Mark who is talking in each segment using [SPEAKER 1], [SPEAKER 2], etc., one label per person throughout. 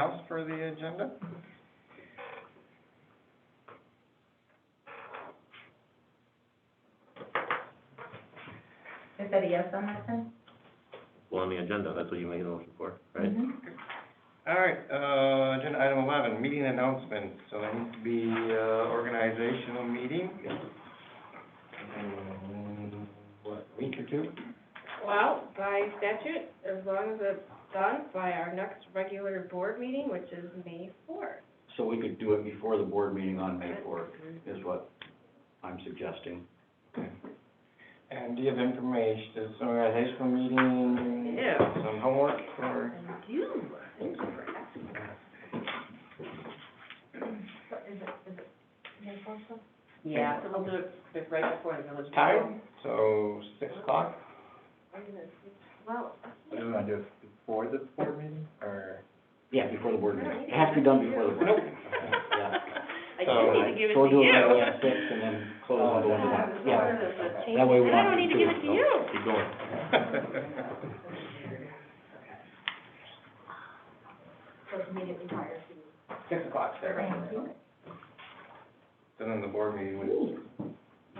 [SPEAKER 1] else for the agenda?
[SPEAKER 2] Is that a yes on that then?
[SPEAKER 3] Well, on the agenda, that's what you made a motion for, right?
[SPEAKER 2] Mm-hmm.
[SPEAKER 1] All right, uh, agenda item eleven, meeting announcements, so there needs to be, uh, organizational meeting. in, What, week or two?
[SPEAKER 4] Well, by statute, as long as it's done by our next regular board meeting, which is May fourth.
[SPEAKER 5] So we could do it before the board meeting on May fourth, is what I'm suggesting.
[SPEAKER 1] And do you have information, is an organizational meeting?
[SPEAKER 4] Yeah.
[SPEAKER 1] Some homework for,
[SPEAKER 4] You, thank you for asking.
[SPEAKER 2] What is it, is it May fourth?
[SPEAKER 1] Yeah,
[SPEAKER 6] Yeah, so we'll do it right before the village.
[SPEAKER 1] time, so six o'clock?
[SPEAKER 4] I'm gonna see.
[SPEAKER 6] Well,
[SPEAKER 7] What do you want to do, before the board meeting, or?
[SPEAKER 5] Yeah, before the board meeting. It has to be done before the board.
[SPEAKER 1] Nope.
[SPEAKER 5] meeting. Yeah.
[SPEAKER 6] I do need to give it
[SPEAKER 5] So Uh, we'll
[SPEAKER 6] to
[SPEAKER 5] do it right
[SPEAKER 6] you.
[SPEAKER 5] away at six and then close on the
[SPEAKER 6] Yeah,
[SPEAKER 5] one.
[SPEAKER 6] this
[SPEAKER 5] Yeah.
[SPEAKER 6] order is a change.
[SPEAKER 5] That way we
[SPEAKER 6] And I
[SPEAKER 5] won't
[SPEAKER 6] don't need to give it to you.
[SPEAKER 3] Keep going.
[SPEAKER 2] So it's immediately prior to.
[SPEAKER 1] Six o'clock, Sarah.
[SPEAKER 2] Thank you.
[SPEAKER 1] So then the board meeting would.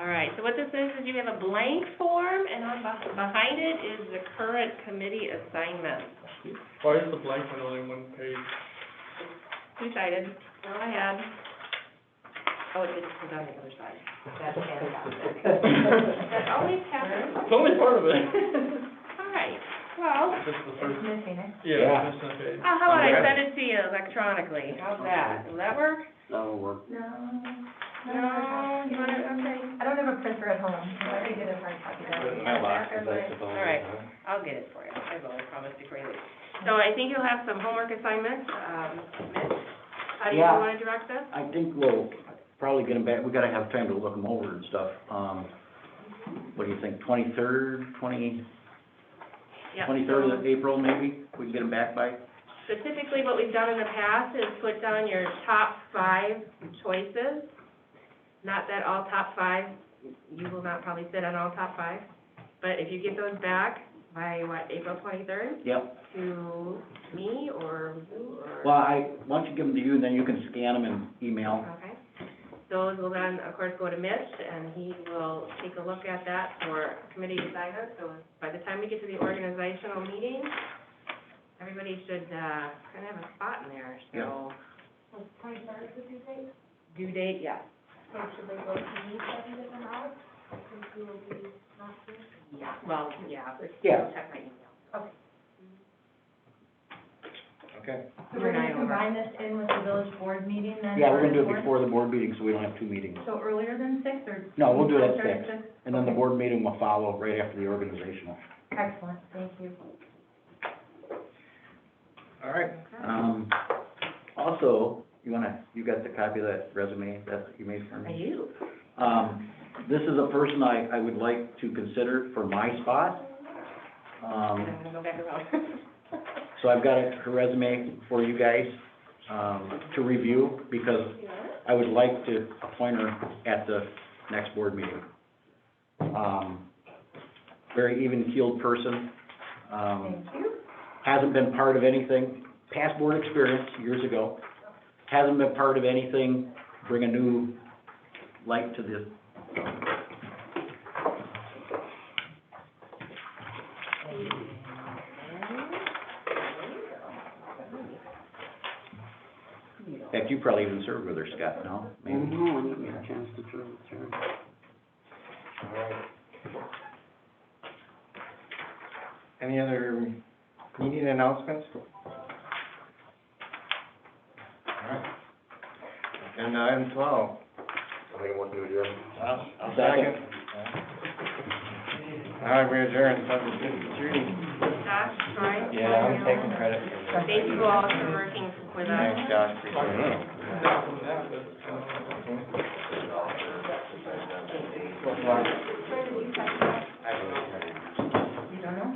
[SPEAKER 6] All right, so what this is, is you have a blank form, and on beh- behind it is the current committee assignment.
[SPEAKER 8] Why is the blank one only one page?
[SPEAKER 6] Two-sided, go ahead. Oh, it didn't come down the other side. That's fantastic.
[SPEAKER 4] That always happens.
[SPEAKER 8] It's only part of it.
[SPEAKER 6] All right, well,
[SPEAKER 8] This is the
[SPEAKER 2] It's
[SPEAKER 8] first,
[SPEAKER 2] missing it.
[SPEAKER 8] yeah, this is the page.
[SPEAKER 6] uh, how about I send it to you electronically? How's that? Will that work?
[SPEAKER 5] That'll work.
[SPEAKER 2] No.
[SPEAKER 6] No, you want it, okay.
[SPEAKER 2] I don't have a printer at home, so I could get a hard copy
[SPEAKER 1] Put it in
[SPEAKER 2] done.
[SPEAKER 1] the mailbox, as I suppose.
[SPEAKER 6] All right.
[SPEAKER 1] huh?
[SPEAKER 6] I'll get it for you, I will, I promise before you leave. So I think you'll have some homework assignments, um, Mitch, how do you
[SPEAKER 5] Yeah.
[SPEAKER 6] wanna direct this?
[SPEAKER 5] I think we'll probably get them back, we gotta have time to look them over and stuff. Um, what do you think, twenty-third, twenty,
[SPEAKER 6] Yeah.
[SPEAKER 5] twenty-third of April maybe? We can get them back by?
[SPEAKER 6] Specifically, what we've done in the past is put down your top five choices. Not that all top five, you will not probably sit on all top five, but if you get those back by, what, April twenty-third,
[SPEAKER 5] Yep.
[SPEAKER 6] to me or you or?
[SPEAKER 5] Well, I, why don't you give them to you, and then you can scan them and email.
[SPEAKER 6] Okay. Those will then, of course, go to Mitch, and he will take a look at that for committee assignment. So by the time we get to the organizational meeting, everybody should, uh, kind of have a spot in there, so.
[SPEAKER 2] Was twenty-third the due date?
[SPEAKER 6] Due date, yes.
[SPEAKER 2] So should they go to me seven different hours? Since you will be not here?
[SPEAKER 6] Yeah. Well, yeah, but
[SPEAKER 5] Yeah.
[SPEAKER 6] check my email.
[SPEAKER 1] Okay,
[SPEAKER 2] So we're
[SPEAKER 6] You're
[SPEAKER 2] gonna
[SPEAKER 6] not
[SPEAKER 2] combine this in with the village board meeting then?
[SPEAKER 5] Yeah,
[SPEAKER 2] for
[SPEAKER 5] we're gonna do
[SPEAKER 2] the
[SPEAKER 5] it before the board meeting, so we don't have two meetings.
[SPEAKER 2] So earlier than six or?
[SPEAKER 5] No, we'll do it at
[SPEAKER 2] 23rd at six?
[SPEAKER 5] And then the board meeting will follow right after the organizational.
[SPEAKER 2] Excellent, thank you.
[SPEAKER 1] all right.
[SPEAKER 5] Um, also, you wanna, you got the copy of that resume that you made for
[SPEAKER 6] I
[SPEAKER 5] me?
[SPEAKER 6] do.
[SPEAKER 5] Um, this is a person I, I would like to consider for my spot.
[SPEAKER 6] And
[SPEAKER 5] Um,
[SPEAKER 6] I'm gonna go back around.
[SPEAKER 5] so I've got her resume for you guys, um, to review, because I would like to appoint her at the next board meeting. Um, very even-keeled person, um,
[SPEAKER 2] Thank you.
[SPEAKER 5] hasn't been part of anything, past board experience years ago, hasn't been part of anything, bring a new light to this. In fact, you probably even served with her, Scott, no? Maybe.
[SPEAKER 9] No, I didn't get a chance to turn it through.
[SPEAKER 1] All right. Any other meeting announcements? All right. Agenda item twelve.
[SPEAKER 3] I think I want to adjourn.
[SPEAKER 5] Second.
[SPEAKER 1] All right, we adjourn, seven fifty-three.
[SPEAKER 6] Josh, Troy.
[SPEAKER 1] Yeah, I'm taking credit for that.
[SPEAKER 6] Thank you all for working with us.
[SPEAKER 1] Thanks, Josh, appreciate it.
[SPEAKER 8] Not from that, but from-
[SPEAKER 1] I don't know.